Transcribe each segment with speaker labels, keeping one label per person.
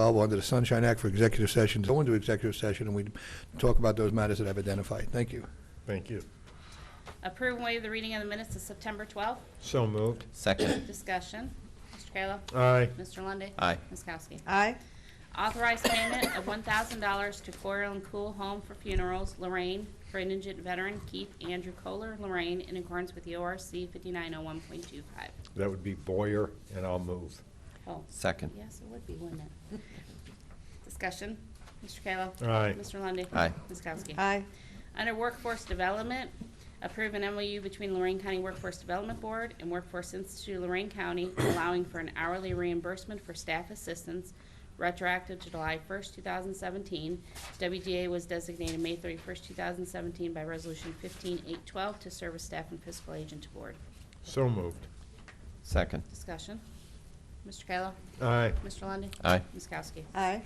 Speaker 1: allowable under the Sunshine Act for executive session, to go into executive session, and we talk about those matters that I've identified. Thank you.
Speaker 2: Thank you.
Speaker 3: Approve and waive the reading of the minutes of September 12th.
Speaker 2: So moved.
Speaker 4: Second.
Speaker 3: Discussion. Mr. Kayla.
Speaker 2: Aye.
Speaker 3: Mr. Lundy.
Speaker 4: Aye.
Speaker 3: Ms. Kowski.
Speaker 5: aye,
Speaker 3: Authorize payment of $1,000 to Coral and Cool Home for Funerals, Lorraine, for indigent veteran Keith Andrew Kohler, Lorraine, in accordance with the ORC 5901.25.
Speaker 2: That would be Boyer, and I'll move.
Speaker 3: Oh,
Speaker 4: Second.
Speaker 3: yes, it would be, wouldn't it? Discussion. Mr. Kayla.
Speaker 2: Aye.
Speaker 3: Mr. Lundy.
Speaker 4: Aye.
Speaker 3: Ms. Kowski.
Speaker 5: aye,
Speaker 3: Under Workforce Development, approve an MOU between Lorraine County Workforce Development Board and Workforce Institute Lorraine County allowing for an hourly reimbursement for staff assistance retroactive to July 1st, 2017. WDA was designated May 31st, 2017 by Resolution 15812 to serve as staff and fiscal agent to board.
Speaker 2: So moved.
Speaker 4: Second.
Speaker 3: Discussion. Mr. Kayla.
Speaker 2: Aye.
Speaker 3: Mr. Lundy.
Speaker 4: Aye.
Speaker 3: Ms. Kowski.
Speaker 5: aye,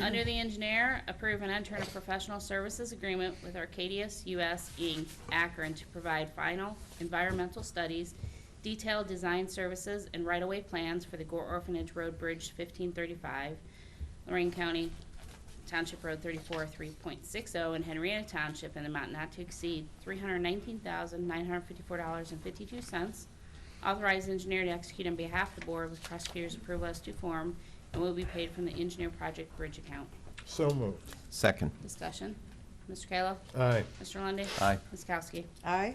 Speaker 3: Under the engineer, approve an intern professional services agreement with Arcadius US Inc., Akron, to provide final environmental studies, detailed design services, and right-of-way plans for the Gore Orphanage Road Bridge 1535, Lorraine County Township Road 34, 3.60, and oh Henrietta Township, in the amount not to exceed $319,954.52. Authorize engineer to execute on behalf of the board with prosecutor's approval as to form and will be paid from the engineer project bridge account.
Speaker 2: So moved.
Speaker 4: Second.
Speaker 3: Discussion. Mr. Kayla?
Speaker 2: Aye.
Speaker 3: Mr. Lundy.
Speaker 4: Aye.
Speaker 3: Ms. Kowski?
Speaker 5: aye,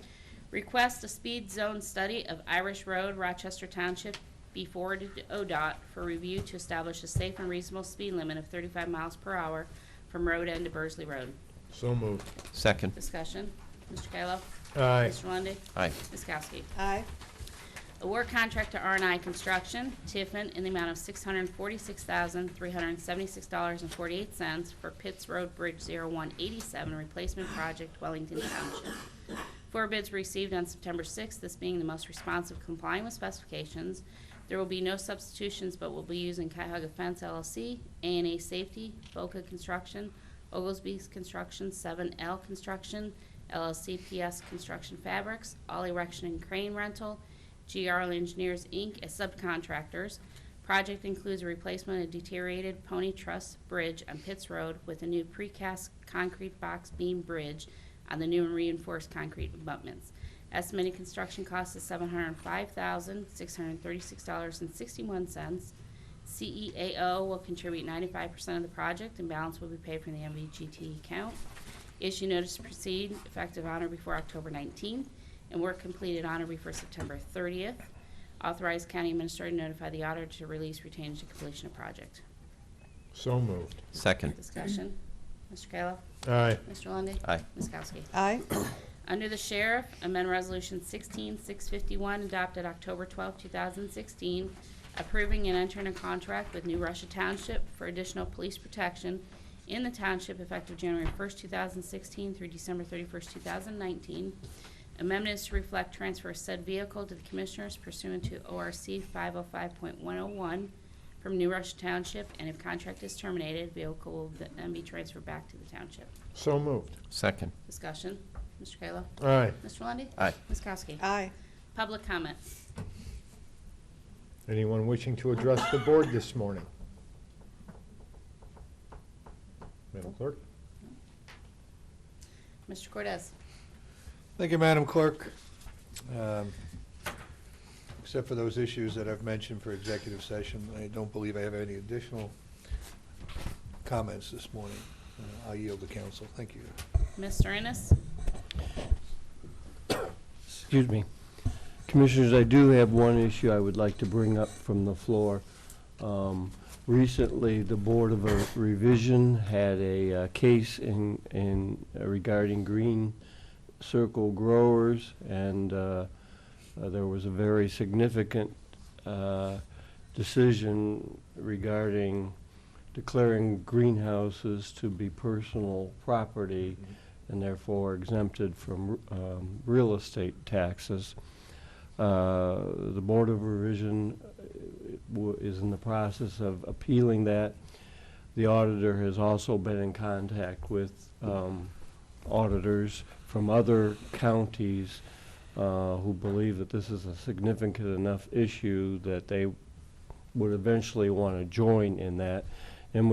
Speaker 3: Request a speed zone study of Irish Road, Rochester Township, be forwarded to ODOT for review to establish a safe and reasonable speed limit of 35 miles per hour from road end to Burzley Road.
Speaker 2: So moved.
Speaker 4: Second.
Speaker 3: Discussion. Mr. Kayla?
Speaker 2: Aye.
Speaker 3: Mr. Lundy.
Speaker 4: Aye.
Speaker 3: Ms. Kowski?
Speaker 5: aye,
Speaker 3: Award contract to r and i Construction, Tiffin, in the amount of $646,376.48 for Pitts Road Bridge 0187 Replacement Project, Wellington Township. Four bids received on September 6th, this being the most responsive complying with specifications. There will be no substitutions, but will be using Cuyahoga Fence LLC, a and A Safety, Boca Construction, Oglesby's Construction, 7L Construction, LLC PS Construction Fabrics, All Erection and Crane Rental, GRL Engineers, Inc. as subcontractors. Project includes a replacement of deteriorated Pony Truss Bridge on Pitts Road with a new precast concrete box beam bridge on the new and reinforced concrete abutments. Estimated construction cost is seven hundred and five thousand, six hundred and thirty-six dollars and sixty-one cents. CEAO will contribute ninety-five percent of the project and balance will be paid from the MVGT account. Issue notice to proceed effective on or before October 19th and work completed on or before September 30th. Authorize county administrator to notify the auditor to release retained to completion of project.
Speaker 2: So moved.
Speaker 4: Second.
Speaker 3: Discussion. Mr. Kayla.
Speaker 2: Aye.
Speaker 3: Mr. Lundey.
Speaker 4: Aye.
Speaker 3: Ms. Kowski.
Speaker 5: aye,
Speaker 3: Under the Sheriff, amend Resolution 16651 adopted October 12, 2016, approving and entering a contract with New Russia Township for additional police protection in the township effective January 1, 2016 through December 31, 2019. Amendments to reflect transfer of said vehicle to the Commissioners pursuant to ORC 505.101 from New Russia Township, and if contract is terminated, vehicle will then be transferred back to the township.
Speaker 2: So moved.
Speaker 4: Second.
Speaker 3: Discussion. Mr. Kayla?
Speaker 2: Aye.
Speaker 3: Mr. Lundy.
Speaker 4: Aye.
Speaker 3: Ms. Kowski?
Speaker 5: aye.
Speaker 3: Public comments.
Speaker 2: Anyone wishing to address the board this morning? Madam Clerk?
Speaker 3: Mr. Cortez?
Speaker 1: Thank you, Madam Clerk. Um, Except for those issues that I've mentioned for executive session, I don't believe I have any additional comments this morning. Uh, I yield to council. Thank you.
Speaker 3: Mr. Ennis?
Speaker 6: Excuse me. Commissioners, I do have one issue I would like to bring up from the floor. Um, Recently, the Board of uh, Revision had a uh, case in, in uh, regarding green circle growers, and uh, uh, there was a very significant uh, decision regarding declaring greenhouses to be personal property and therefore exempted from um, real estate taxes. Uh, The Board of Revision uh, w- is in the process of appealing that. The auditor has also been in contact with um, auditors from other counties uh, who believe that this is a significant enough issue that they would eventually want to join in that.